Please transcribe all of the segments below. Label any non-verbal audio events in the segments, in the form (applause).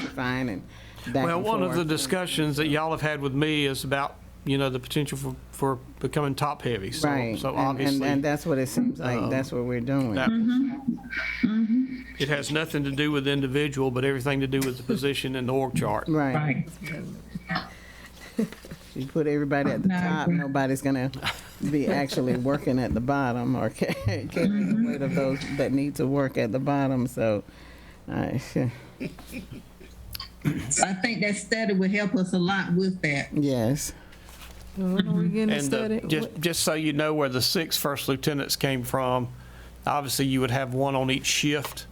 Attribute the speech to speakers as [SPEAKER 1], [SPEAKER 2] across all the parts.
[SPEAKER 1] fine and back
[SPEAKER 2] Well,
[SPEAKER 1] and
[SPEAKER 2] one of the
[SPEAKER 1] forth.
[SPEAKER 2] discussions that y'all have had with me is about, you know, the potential for, for becoming top-heavy. So-
[SPEAKER 1] Right.
[SPEAKER 2] So
[SPEAKER 1] and- and- And
[SPEAKER 2] obviously, um,
[SPEAKER 1] that's what it seems like, that's what we're doing.
[SPEAKER 2] that- it has nothing to do with the individual, but everything to do with the position in the org chart.
[SPEAKER 1] Right.
[SPEAKER 3] Right.
[SPEAKER 1] You put everybody at the
[SPEAKER 3] No, I
[SPEAKER 1] top,
[SPEAKER 3] agree.
[SPEAKER 1] nobody's gonna be actually working at the bottom or (laughs) ca- carrying the weight of those that need to work at the bottom, so. uh, I-
[SPEAKER 3] I think that study would help us a lot with that.
[SPEAKER 1] (laughs) Yes,
[SPEAKER 4] When are we getting to
[SPEAKER 2] And the-
[SPEAKER 4] study?
[SPEAKER 2] just, just so you know where the six first lieutenants came from, obviously you would have one on each shift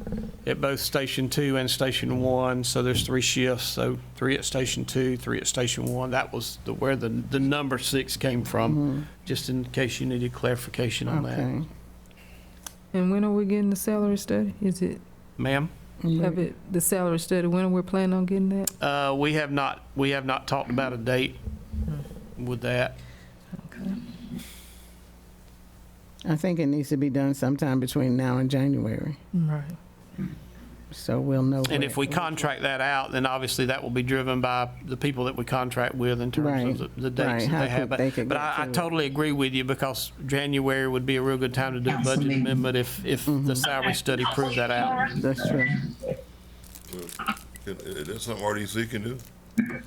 [SPEAKER 2] at both Station Two and Station One. So there's three shifts, so three at Station Two, three at Station One. That was the, where the, the number six came from, just in case you needed clarification on that.
[SPEAKER 1] okay.
[SPEAKER 4] And when are we getting the salary study? Is it,
[SPEAKER 2] Ma'am?
[SPEAKER 4] have it, the salary study, when are we planning on getting that?
[SPEAKER 2] Uh, we have not, we have not talked about a date with that.
[SPEAKER 1] I think it needs to be done sometime between now and January,
[SPEAKER 4] Right.
[SPEAKER 1] so we'll know.
[SPEAKER 2] And
[SPEAKER 1] where-
[SPEAKER 2] if we contract that out, then obviously that will be driven by the people that we contract with in terms
[SPEAKER 1] Right,
[SPEAKER 2] of the- the
[SPEAKER 1] right,
[SPEAKER 2] dates
[SPEAKER 1] how
[SPEAKER 2] that they have.
[SPEAKER 1] quick they
[SPEAKER 2] But
[SPEAKER 1] could
[SPEAKER 2] but
[SPEAKER 1] get
[SPEAKER 2] I I
[SPEAKER 1] to it.
[SPEAKER 2] totally agree with you because January would be a real good time to do a budget
[SPEAKER 3] Absolutely.
[SPEAKER 2] amendment if, if
[SPEAKER 1] Mm-hmm.
[SPEAKER 2] the salary study proved that out.
[SPEAKER 1] That's true.
[SPEAKER 5] Can- Is that something RDC can do?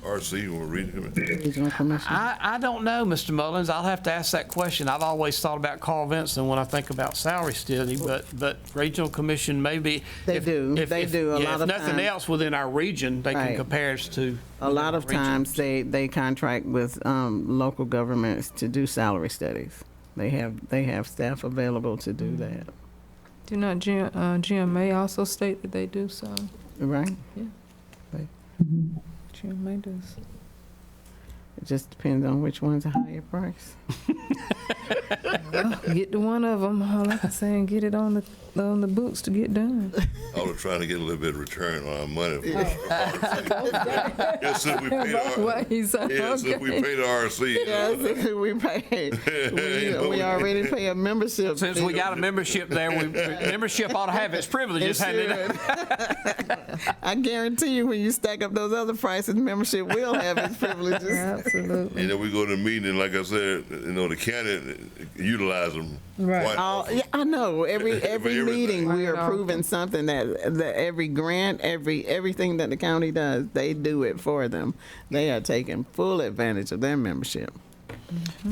[SPEAKER 5] RC or regional committee?
[SPEAKER 1] Regional Commission,
[SPEAKER 2] I, I don't know, Mr. Mullins. I'll have to ask that question. I've always thought about Carl Vinson when I think about salary study, but, but regional commission maybe.
[SPEAKER 1] They do. They do. A lot of
[SPEAKER 2] If nothing
[SPEAKER 1] times-
[SPEAKER 2] else within our region, they can
[SPEAKER 1] Right.
[SPEAKER 2] compare us to.
[SPEAKER 1] a lot of
[SPEAKER 2] region.
[SPEAKER 1] times they, they contract with um, local governments to do salary studies. They have, they have staff available to do
[SPEAKER 2] Mm.
[SPEAKER 1] that,
[SPEAKER 4] Do not Jim, uh, GMA also state that they do so?
[SPEAKER 1] right?
[SPEAKER 4] GMA does.
[SPEAKER 1] It just depends on which one's a higher
[SPEAKER 2] (laughs)
[SPEAKER 1] price.
[SPEAKER 4] (laughs) Get to one of them, all I can say, and get it on the, on the books to get done.
[SPEAKER 5] I was trying to get a little bit of return on our money. for (laughs) RC. Yes, since we
[SPEAKER 4] (laughs)
[SPEAKER 5] paid our,
[SPEAKER 4] What, he's,
[SPEAKER 5] yeah, since we
[SPEAKER 4] okay.
[SPEAKER 5] paid RC. you know,
[SPEAKER 1] (laughs) we
[SPEAKER 2] (laughs)
[SPEAKER 1] pay,
[SPEAKER 5] Yeah.
[SPEAKER 1] we, we already pay a membership.
[SPEAKER 2] Since we got a membership there, we, membership ought to have its privileges, hadn't it?
[SPEAKER 1] should. (laughs) I guarantee you, when you stack up those other prices, membership will have
[SPEAKER 2] (laughs)
[SPEAKER 1] its privileges.
[SPEAKER 4] Absolutely.
[SPEAKER 5] (laughs) And then we go to the meeting, like I said, you know, the county utilize them.
[SPEAKER 3] Right.
[SPEAKER 5] quite
[SPEAKER 1] All,
[SPEAKER 5] often.
[SPEAKER 1] Uh, yeah, I know. Every
[SPEAKER 5] For
[SPEAKER 1] every meeting,
[SPEAKER 5] everything.
[SPEAKER 1] we are
[SPEAKER 4] Right.
[SPEAKER 1] approving something that that every grant, every everything that the county does, they do it for them. They are taking full advantage of their membership.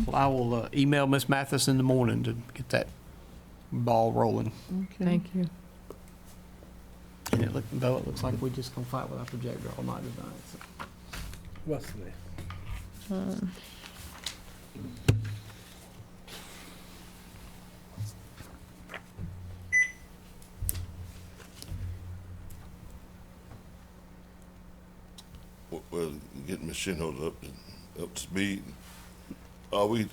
[SPEAKER 2] Well, I will uh, email Miss Mathis in the morning to get that ball rolling.
[SPEAKER 4] Thank you.
[SPEAKER 2] And it look, though it looks like we're just gonna fight with our projector all night tonight. so.
[SPEAKER 6] Wesley.
[SPEAKER 5] Well, well, getting Ms. Shinhold up, to- up to speed. Are we,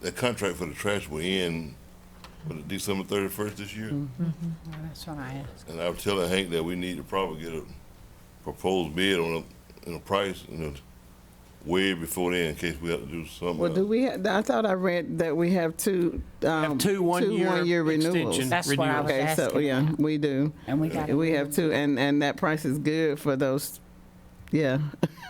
[SPEAKER 5] that contract for the trash will end, with it December thirty-first this year?
[SPEAKER 7] That's what I asked.
[SPEAKER 5] And I was telling Hank that we need to probably get a proposed bid on a, on a price, you know, way before then, in case we have to do something.
[SPEAKER 1] Well, do we? Have, I thought I read that we have two um,
[SPEAKER 2] Have two one-year
[SPEAKER 1] one-year renewals.
[SPEAKER 2] extension
[SPEAKER 7] That's what I was
[SPEAKER 2] renewals.
[SPEAKER 1] Okay, so
[SPEAKER 7] asking.
[SPEAKER 1] yeah, we do.
[SPEAKER 7] And we got it.
[SPEAKER 1] We have two, and and that price is good for those. Yeah,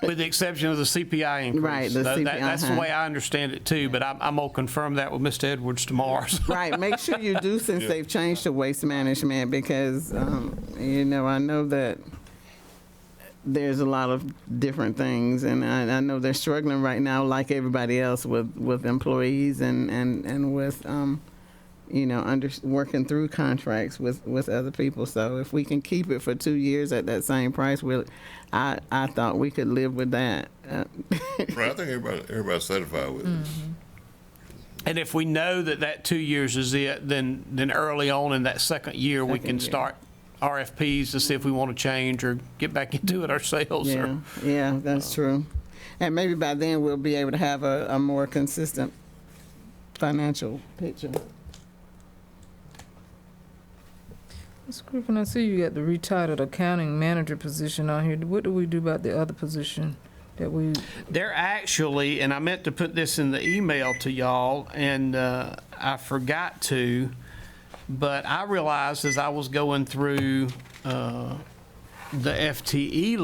[SPEAKER 2] With the exception of the CPI increase.
[SPEAKER 1] Right, the
[SPEAKER 2] Tha- that-
[SPEAKER 1] CPI,
[SPEAKER 2] That's the
[SPEAKER 1] uh-huh.
[SPEAKER 2] way I understand it too, but I'm, I'm gonna confirm that with Mr. Edwards tomorrow. (laughs) so.
[SPEAKER 1] right. Make sure you do since
[SPEAKER 5] Yeah.
[SPEAKER 1] they've changed to waste management because um, you know I know that there's a lot of different things, and I, I know they're struggling right now, like everybody else, with with employees and and and with. Um, you know, under working through contracts with with other people. So if we can keep it for two years at that same price, we'll. I I thought we could live with that. Uh, (laughs)
[SPEAKER 5] Right, I think everybody, everybody's satisfied with
[SPEAKER 1] Mm.
[SPEAKER 5] it.
[SPEAKER 2] And if we know that that two years is it, then, then early on in that second year, we
[SPEAKER 1] Second
[SPEAKER 2] can
[SPEAKER 1] year.
[SPEAKER 2] start RFPs to see if we wanna change or get back (laughs) into it ourselves
[SPEAKER 1] yeah,
[SPEAKER 2] or
[SPEAKER 1] yeah, that's true. And maybe by then we'll be able to have a, a more consistent financial picture.
[SPEAKER 4] Ms. Griffin, I see you got the retitled accounting manager position on here. What do we do about the other position that we,
[SPEAKER 2] They're actually, and I meant to put this in the email to y'all, and uh, I forgot to, but I realized as I was going through uh, the FTE